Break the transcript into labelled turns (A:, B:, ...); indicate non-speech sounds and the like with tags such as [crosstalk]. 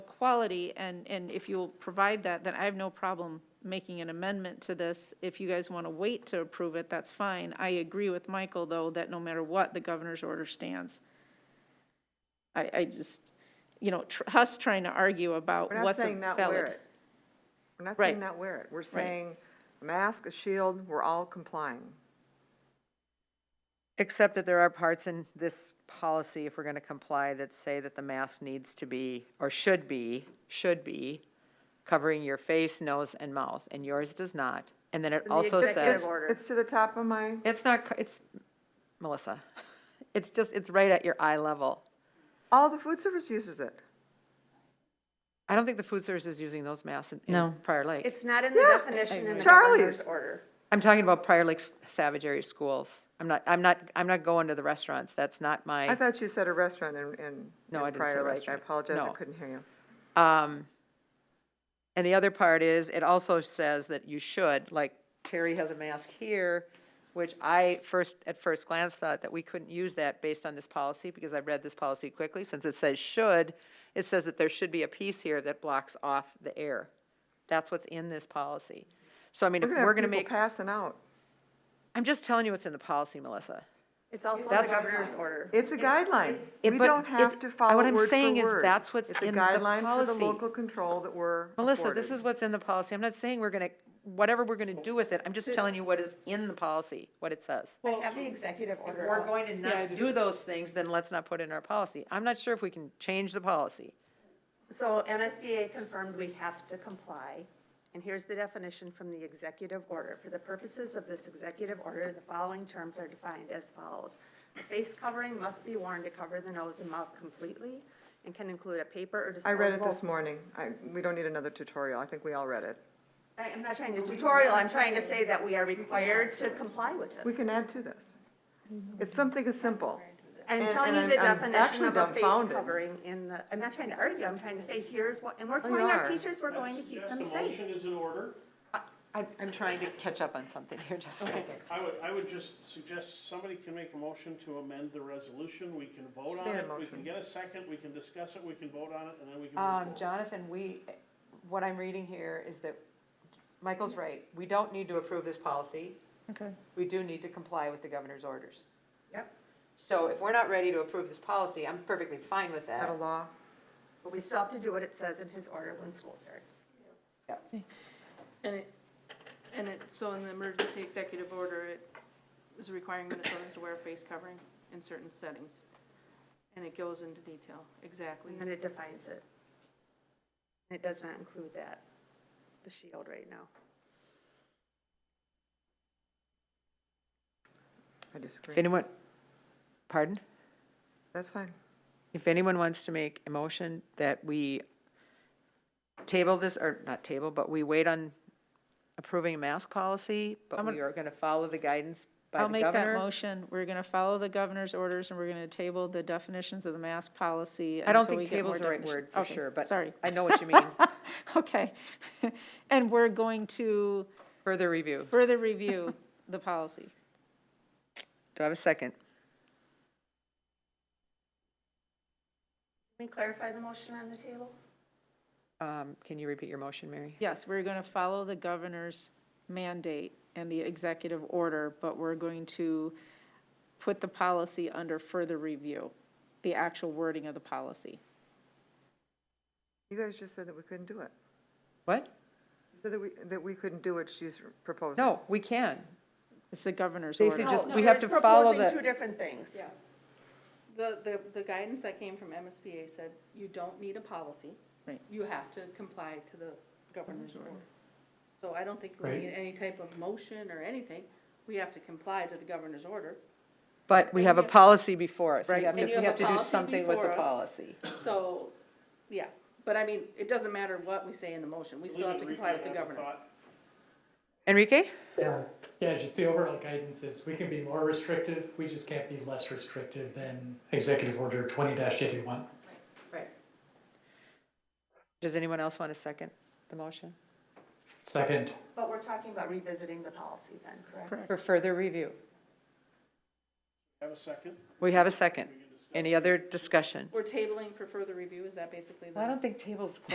A: quality, and, and if you'll provide that, then I have no problem making an amendment to this. If you guys want to wait to approve it, that's fine. I agree with Michael, though, that no matter what, the governor's order stands. I, I just, you know, tr- us trying to argue about
B: We're not
A: what's a
B: saying not wear
A: valid.
B: it. We're not saying
A: Right.
B: not wear it. We're saying a mask, a shield, we're all complying.
C: Except that there are parts in this policy, if we're going to comply, that say that the mask needs to be, or should be, should be covering your face, nose, and mouth, and yours does not. And then it also
B: It's,
C: says,
D: order.
B: it's to the top of my,
C: it's not, co- it's, Melissa, [laughs] it's just, it's right at your eye level.
B: all the food service uses it.
C: I don't think the food service is using those masks in- in Prior Lake.
D: It's not in the definition in the
B: Charlie's.
D: governor's order.
C: I'm talking about Prior Lake Savage Area Schools. I'm not, I'm not, I'm not going to the restaurants. That's not my.
B: I thought you said a restaurant in, in
C: No,
B: in
C: I didn't say
B: Prior Lake. I
C: restaurant.
B: apologize, I
C: No.
B: couldn't hear you.
C: Um, And the other part is, it also says that you should, like Terry has a mask here, which I first, at first glance thought that we couldn't use that based on this policy, because I've read this policy quickly, since it says should, it says that there should be a piece here that blocks off the air. That's what's in this policy. So I mean, if
B: We're
C: we're
B: gonna
C: gonna
B: have people
C: make,
B: passing out.
C: I'm just telling you what's in the policy, Melissa.
D: It's also in the governor's order.
B: It's a guideline.
C: it-
B: We
C: but
B: don't have
C: it-
B: to
C: I-
B: follow
C: what
B: word
C: I'm
B: for
C: saying is
B: word.
C: that's what's in the
B: It's a guideline for the
C: policy.
B: local control that we're
C: Melissa, this
B: afforded.
C: is what's in the policy. I'm not saying we're gonna, whatever we're gonna do with it, I'm just telling you what is in the policy, what it says.
D: I have the executive order.
C: we're going to not do those things, then let's not put it in our policy. I'm not sure if we can change the policy.
D: So MSBA confirmed we have to comply. And here's the definition from the executive order. For the purposes of this executive order, the following terms are defined as follows. A face covering must be worn to cover the nose and mouth completely and can include a paper or
B: I
D: disposable.
B: read it this morning. I, we don't need another tutorial. I think we all read it.
D: I- I'm not trying to tutorial, I'm trying to say that we are required to comply with this.
B: We can add to this. It's something as simple.
D: I'm
B: And-
D: telling you
B: and
D: the
B: I'm- I'm
D: definition
B: actually
D: of a face
B: dumbfounded.
D: covering in the, I'm not trying to argue, I'm trying to say, here's what, and we're
B: Oh, you
D: telling our
B: are.
D: teachers we're going to keep
E: Yes,
D: them
E: the
D: safe.
E: motion is in order.
C: I'm, I'm trying to catch up on something here, [laughs] just a second.
E: I would, I would just suggest somebody can make a motion to amend the resolution. We can vote on
B: Made a
E: it. We
B: motion.
E: can get a second, we can discuss it, we can vote on it, and then we can
C: Um,
E: move forward.
C: Jonathan, we, what I'm reading here is that, Michael's right, we don't need to approve this policy.
A: Okay.
C: We do need to comply with the governor's orders.
D: Yep.
C: So if we're not ready to approve this policy, I'm perfectly fine with
B: Out
C: that.
B: of law.
D: But we still have to do what it says in his order when school starts.
F: And it, and it, so in the emergency executive order, it was requiring Minnesotans to wear a face covering in certain settings. And it goes into detail, exactly.
D: And then it defines it. And it does not include that, the shield right now.
B: I disagree.
C: anyone, pardon?
B: That's fine.
C: If anyone wants to make a motion that we table this, or not table, but we wait on approving a mask policy, but we are going to follow the guidance by
A: I'll
C: the
A: make that
C: governor.
A: motion. We're going to follow the governor's orders, and we're going to table the definitions of the mask policy.
C: I don't
A: until we
C: think
A: get more
C: table's the right
A: definition.
C: word for
A: Okay,
C: sure, but
A: Sorry. [laughs]
C: I know what you mean.
A: Okay. [laughs] And we're going to
C: Further review.
A: further review the policy.
C: Do I have a second?
D: Can we clarify the motion on the table?
C: Um, Can you repeat your motion, Mary?
A: Yes, we're going to follow the governor's mandate and the executive order, but we're going to put the policy under further review, the actual wording of the policy.
B: You guys just said that we couldn't do it.
C: What?
B: So that we, that we couldn't do what she's proposing.
C: No, we can.
A: It's the governor's
C: Basically,
A: order.
C: just, we have to follow
D: Proposing two
C: the,
D: different things.
F: Yeah. The, the, the guidance that came from MSBA said, you don't need a policy.
A: Right.
F: You have to comply to the governor's order. So I don't think we need any type of motion or anything. We have to comply to the governor's order.
C: but we
F: and
C: have
F: you
C: a
F: have-
C: policy before us. We
A: Right.
C: have to,
F: And you
C: we
F: have
C: have
F: a
C: to do
F: policy
C: something with the
F: before us.
C: policy.
F: So, yeah, but I mean, it doesn't matter what we say in the motion, we still have to comply with the
E: Leave it as a
F: governor.
E: thought.
C: Enrique?
G: Yeah, yeah, just the overall guidance is we can be more restrictive, we just can't be less restrictive than Executive Order twenty eighty-one.
C: Right. Does anyone else want to second the motion?
G: Second,
D: But we're talking about revisiting the policy then, correct?
C: For further review.
E: Have a second?
C: We have a second. Any other discussion?
F: Oh, We're tabling for further review, is that basically the?
C: I don't think tables